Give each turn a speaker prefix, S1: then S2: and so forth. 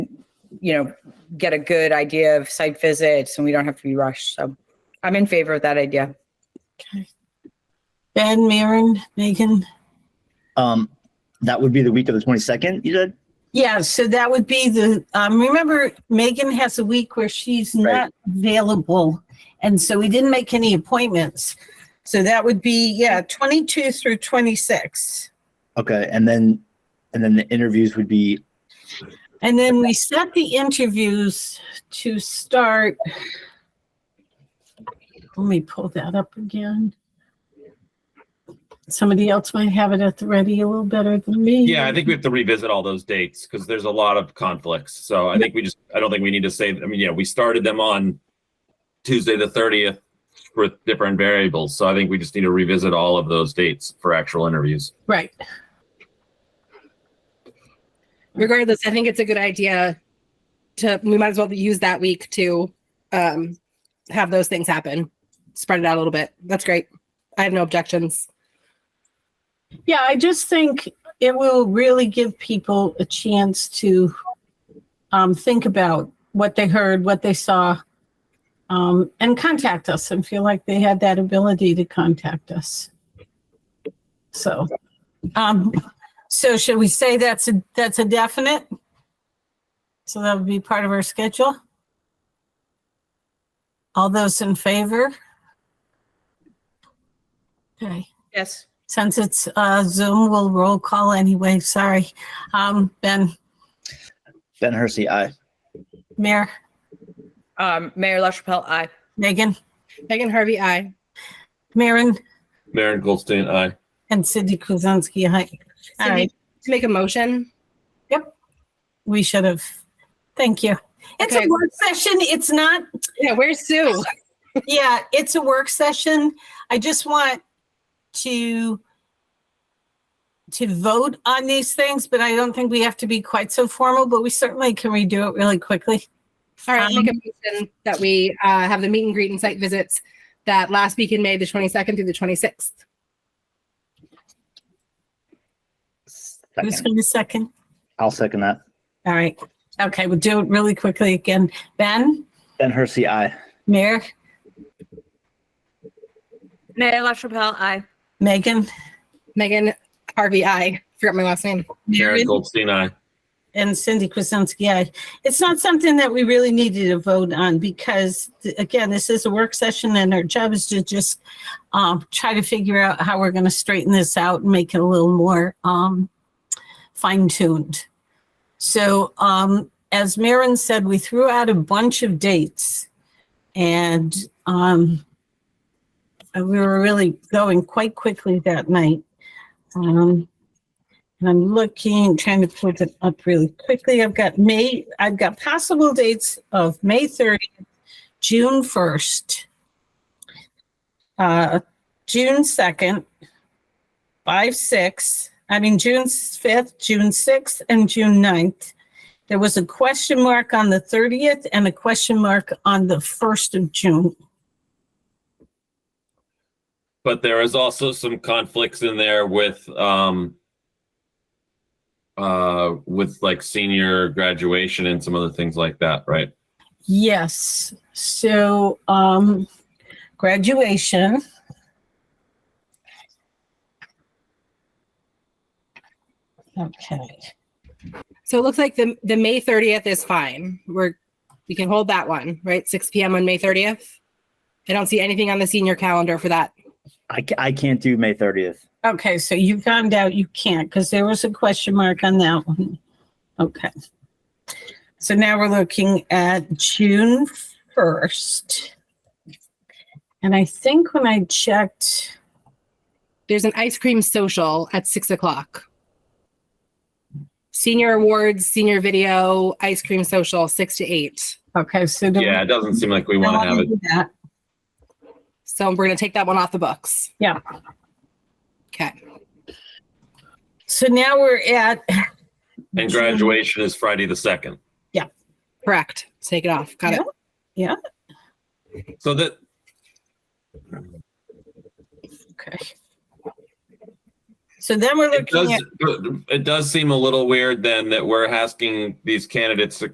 S1: you know, get a good idea of site visits and we don't have to be rushed. So I'm in favor of that idea.
S2: Ben, Maren, Megan.
S3: Um, that would be the week of the twenty-second, you said?
S2: Yeah, so that would be the, um, remember Megan has a week where she's not
S3: Right.
S2: available. And so we didn't make any appointments. So that would be, yeah, 22 through 26.
S3: Okay, and then, and then the interviews would be,
S2: And then we set the interviews to start. Let me pull that up again. Somebody else might have it at the ready a little better than me.
S4: Yeah, I think we have to revisit all those dates because there's a lot of conflicts. So I think we just, I don't think we need to say, I mean, yeah, we started them on Tuesday, the thirtieth for different variables. So I think we just need to revisit all of those dates for actual interviews.
S2: Right.
S5: regardless, I think it's a good idea to, we might as well use that week to um, have those things happen. Spread it out a little bit. That's great. I have no objections.
S2: Yeah, I just think it will really give people a chance to um, think about what they heard, what they saw, um, and contact us and feel like they had that ability to contact us. So, um, so should we say that's a that's a definite? So that would be part of our schedule. All those in favor? Okay
S1: Yes.
S2: since it's uh, Zoom, we'll roll call anyway. Sorry. Um, Ben,
S3: Ben Hersey, aye.
S2: Mayor,
S1: Um, Mayor LaChapelle, aye.
S2: Megan,
S5: Megan Harvey, I.
S2: Maren,
S4: Maren Goldstein, aye.
S2: and Cindy Kuzensky. Hi. All right,
S5: To make a motion.
S2: we should have. Thank you. It's
S5: Okay.
S2: a work session. It's not,
S5: Yeah, where's Sue?
S2: yeah, it's a work session. I just want to to vote on these things, but I don't think we have to be quite so formal, but we certainly can redo it really quickly. Um,
S5: All right, I'll make a motion that we uh, have the meet and greet and site visits that last week in May, the 22nd through the 26th.
S2: Who's
S3: Second.
S2: going to second?
S3: I'll second that.
S2: All right. Okay, we'll do it really quickly again. Ben,
S3: Ben Hersey, aye.
S2: Mayor,
S1: Mayor LaChapelle, aye.
S2: Megan,
S5: Megan Harvey, I. Forgot my last name.
S4: Maren
S2: Maren,
S4: Goldstein, aye.
S2: and Cindy Kuzensky. aye. It's not something that we really needed to vote on because, th- again, this is a work session and our job is to just um, try to figure out how we're going to straighten this out and make it a little more um, fine tuned. So, um, as Marin said, we threw out a bunch of dates and um, and we were really going quite quickly that night. Um, and I'm looking, trying to put it up really quickly. I've got May, I've got possible dates of May 30th, June 1st, uh, June 2nd, 5, 6, I mean, June 5th, June 6th, and June 9th. There was a question mark on the 30th and a question mark on the 1st of June.
S4: But there is also some conflicts in there with, um, uh, with like senior graduation and some other things like that, right?
S2: Yes, so, um, graduation. Okay,
S5: So it looks like the, the May 30th is fine. We're, we can hold that one, right? 6 PM on May 30th. I don't see anything on the senior calendar for that.
S3: I, ca- I can't do May thirtieth.
S2: okay, so you found out you can't, because there was a question mark on that one. Okay. So now we're looking at June first. And I think when I checked,
S5: There's an ice cream social at six o'clock. Senior awards, senior video, ice cream social, six to eight.
S2: okay, so. do we-
S4: Yeah, it doesn't seem like we
S2: do we
S4: want to have
S2: wanna
S4: it.
S2: do that?
S5: So we're gonna take that one off the books.
S2: Yeah.
S5: Okay.
S2: So now we're at.
S4: And graduation is Friday, the second.
S5: Correct. Take it off. Got it.
S4: So that,
S2: Okay. So then we're
S4: It
S2: looking at,
S4: does, it does seem a little weird then that we're asking these candidates to